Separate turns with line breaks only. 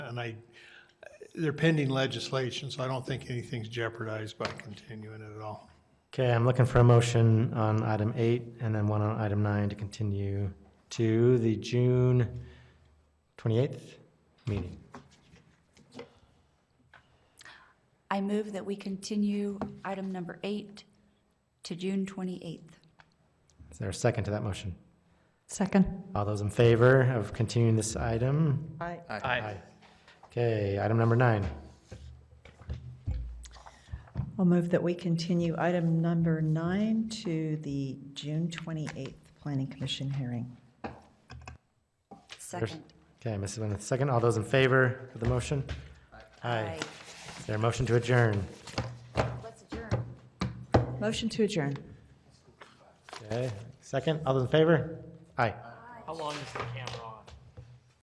and I, they're pending legislation, so I don't think anything's jeopardized by continuing it at all.
Okay, I'm looking for a motion on item eight and then one on item nine to continue to the June 28th meeting.
I move that we continue item number eight to June 28th.
Is there a second to that motion?
Second.
All those in favor of continuing this item?
Aye.
Aye. Okay, item number nine.
I'll move that we continue item number nine to the June 28th Planning Commission hearing.
Second.
Okay, Mrs. Lynn with the second. All those in favor of the motion? Aye. Is there a motion to adjourn?
Let's adjourn.
Motion to adjourn.
Okay, second. All those in favor? Aye.
How long is the camera?